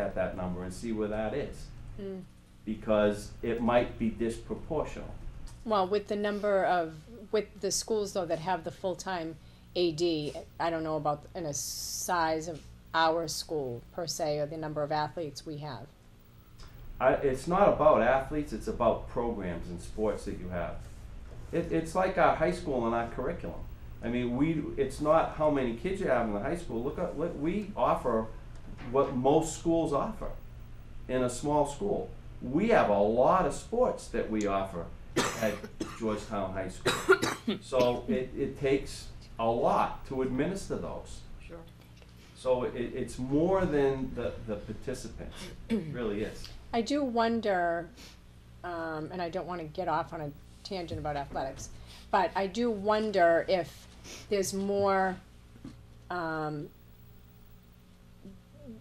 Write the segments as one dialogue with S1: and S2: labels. S1: at that number and see where that is. Because it might be disproportional.
S2: Well, with the number of, with the schools though that have the full-time AD, I don't know about in a size of our school per se, or the number of athletes we have.
S1: I, it's not about athletes, it's about programs and sports that you have. It, it's like our high school and our curriculum. I mean, we, it's not how many kids you have in the high school, look at, look, we offer what most schools offer in a small school. We have a lot of sports that we offer at Georgetown High School. So it, it takes a lot to administer those.
S3: Sure.
S1: So it, it's more than the, the participants, It really is.
S2: I do wonder, um, and I don't wanna get off on a tangent about athletics, but I do wonder if there's more, um,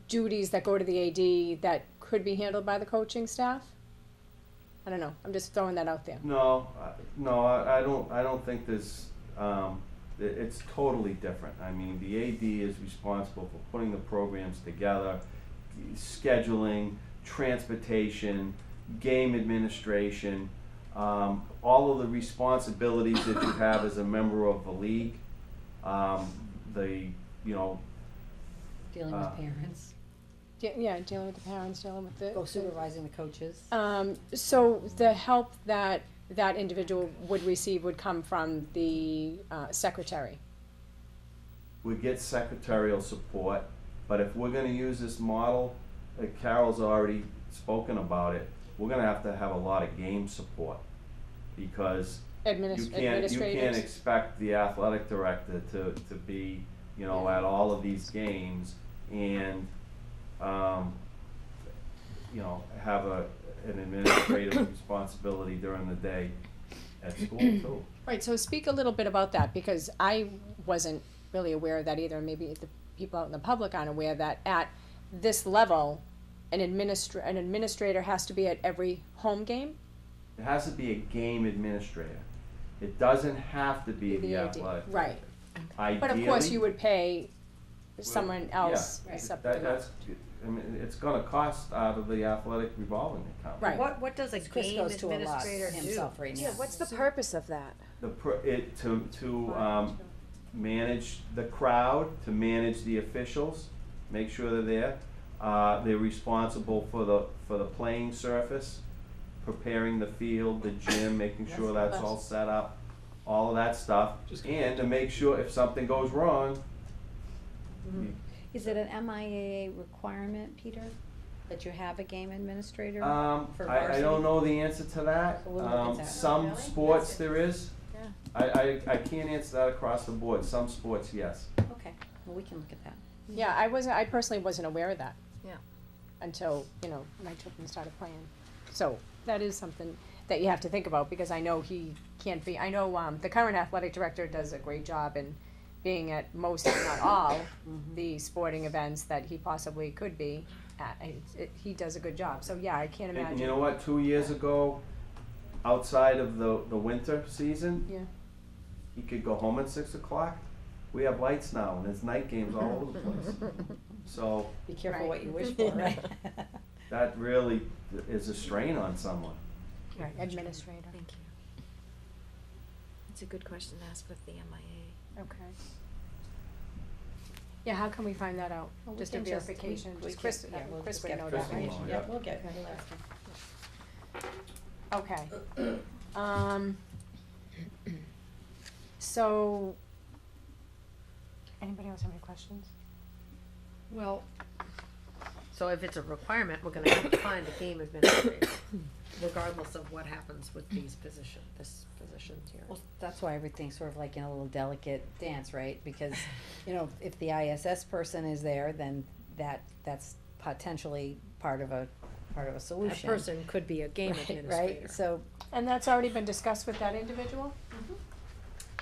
S2: duties that go to the AD that could be handled by the coaching staff? I don't know, I'm just throwing that out there.
S1: No, I- no, I, I don't, I don't think there's, um, i- it's totally different. I mean, the AD is responsible for putting the programs together, scheduling, transportation, game administration, um, all of the responsibilities that you have as a member of the league. Um, the, you know,
S3: Dealing
S1: Uh,
S3: with parents,
S2: De- Yeah, dealing with the parents, dealing with the.
S3: go supervising the coaches.
S2: Um, so the help that that individual would receive would come from the uh, secretary.
S1: we get secretarial support, but if we're gonna use this model, uh, Carol's already spoken about it, we're gonna have to have a lot of game support. Because you
S2: Administ-
S1: can't, you can't
S2: administrators.
S1: expect the athletic director to, to be, you know, at all of these games and, um, you know, have a, an administrative responsibility during the day at school too.
S2: Right, so speak a little bit about that because I wasn't really aware of that either. and Maybe the people out in the public aren't aware that at this level, an administr- an administrator has to be at every home game.
S1: It has to be a game administrator. It doesn't have to be the
S2: The AD,
S1: athletic.
S2: right.
S1: Ideally.
S2: But of course, you would pay someone
S1: yeah,
S2: else a
S3: Right.
S2: separate
S1: That,
S2: amount.
S1: that's, I mean, it's gonna cost out of the athletic revolving account.
S2: Right.
S4: What, what does a
S3: Chris
S4: game
S3: goes to a lot
S4: administrator do?
S3: himself right now.
S4: Yeah, what's the purpose of that?
S1: The, pr- it, to, to, um, manage the crowd, to manage the officials, make sure they're there. Uh, they're responsible for the, for the playing surface, preparing the field, the gym, making sure that's all set up, all of that stuff.
S5: Just-
S1: And to make sure if something goes wrong,
S3: Is it an MIAA requirement, Peter, that you have a game administrator?
S1: Um,
S3: for
S1: I, I
S3: varsity?
S1: don't know the answer to that.
S3: So we'll look
S1: Um,
S3: into that.
S1: some
S6: Really?
S1: sports
S6: That's
S1: there is.
S6: Yeah.
S1: I, I, I can't answer that across the board. Some sports, yes.
S3: Okay, well, we can look at that.
S2: Yeah, I wasn't, I personally wasn't aware of that.
S6: Yeah.
S2: Until, you know, my children started playing. So that is something that you have to think about because I know he can't be, I know, um, the current athletic director does a great job in being at most, if not all,
S3: Mm-hmm.
S2: the sporting events that he possibly could be at. It's- it- He does a good job. So, yeah, I can't
S1: And you
S2: imagine.
S1: know what, two years ago, outside of the, the winter season.
S2: Yeah.
S1: He could go home at six o'clock. We have lights now and there's night games all over the place. So
S3: Be careful
S2: Right.
S3: what you wish for, right?
S1: that really is a strain on someone.
S2: Right, administrator.
S6: Thank you. It's a good question to ask with the MIA.
S2: Okay. Yeah, how can we find that out?
S3: Well, we
S2: Just a
S3: can just- we-
S2: verification.
S3: we
S2: Just
S3: can-
S2: Chris,
S3: yeah,
S2: yeah,
S3: we'll
S2: Chris
S3: just
S2: would
S3: get
S2: know
S1: Chris
S2: that,
S1: will
S2: right?
S1: know,
S3: Yeah,
S1: yeah.
S3: we'll get,
S2: Okay.
S3: we'll ask him.
S2: Okay. Um, so, anybody else have any questions?
S4: Well, so if it's a requirement, we're gonna have to find a game administrator, regardless of what happens with these position, this positions here.
S3: Well, that's why everything's sort of like in a little delicate dance, right? Because, you know, if the ISS person is there, then that, that's potentially part of a, part of a
S4: That
S3: solution.
S4: person could be a game
S3: Right,
S4: administrator.
S3: Right, so,
S2: And that's already been discussed with that individual,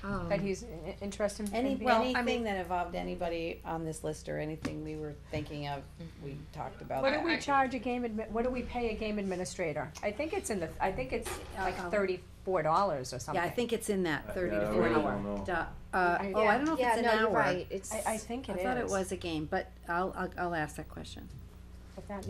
S4: um,
S2: that he's i- i- interested in
S3: any,
S2: being?
S3: well, anything that involved anybody on this list or anything we were thinking of, we talked about
S2: Mm-hmm. What
S3: that.
S2: do we charge a game admi- what do we pay a game administrator? I think it's in the, I think it's like
S3: Um,
S2: thirty-four dollars or something.
S3: Yeah, I think it's in that
S1: I-
S3: thirty
S1: Uh, yeah,
S3: to
S1: I
S3: forty.
S1: really don't know.
S3: Duh. Uh,
S2: I-
S3: oh, I don't know if it's an hour.
S6: Yeah, no, you're right, it's.
S2: I, I think it is.
S3: I thought it was a game, but I'll, I'll, I'll ask that question.
S2: But that